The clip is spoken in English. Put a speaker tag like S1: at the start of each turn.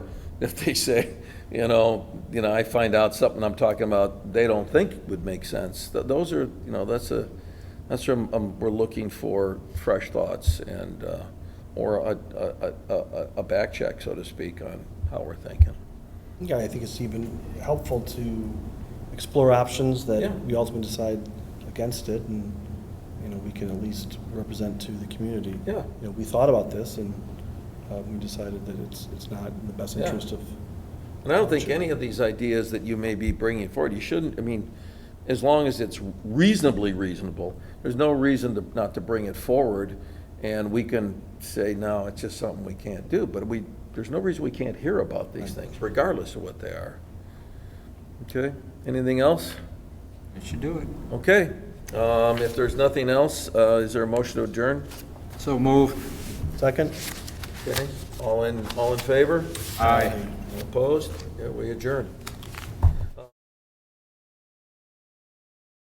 S1: if they say, you know, you know, I find out something I'm talking about they don't think would make sense. Th- Those are, you know, that's a, that's where um, we're looking for fresh thoughts and, uh, or a, a, a- a, a back check, so to speak, on how we're thinking.
S2: Yeah, I think it's even helpful to explore options
S1: Yeah.
S2: that we ultimately decide against it, and, you know, we can at least represent to the community.
S1: Yeah.
S2: You know, we thought about this, and uh, we decided that it's, it's not in the best
S1: Yeah.
S2: interest of,
S1: And I don't think any of these ideas that you may be bringing forward, you shouldn't, I mean, as long as it's reasonably reasonable, there's no reason to, not to bring it forward, and we can say, no, it's just something we can't do, but we, there's no reason we can't hear about these things, regardless of what they are. Okay, anything else?
S3: It should do it.
S1: Okay, um, if there's nothing else, uh, is there a motion to adjourn?
S3: So move.
S2: second?
S1: Okay, all in, all in favor?
S3: Aye.
S1: Opposed? Yeah, we adjourn.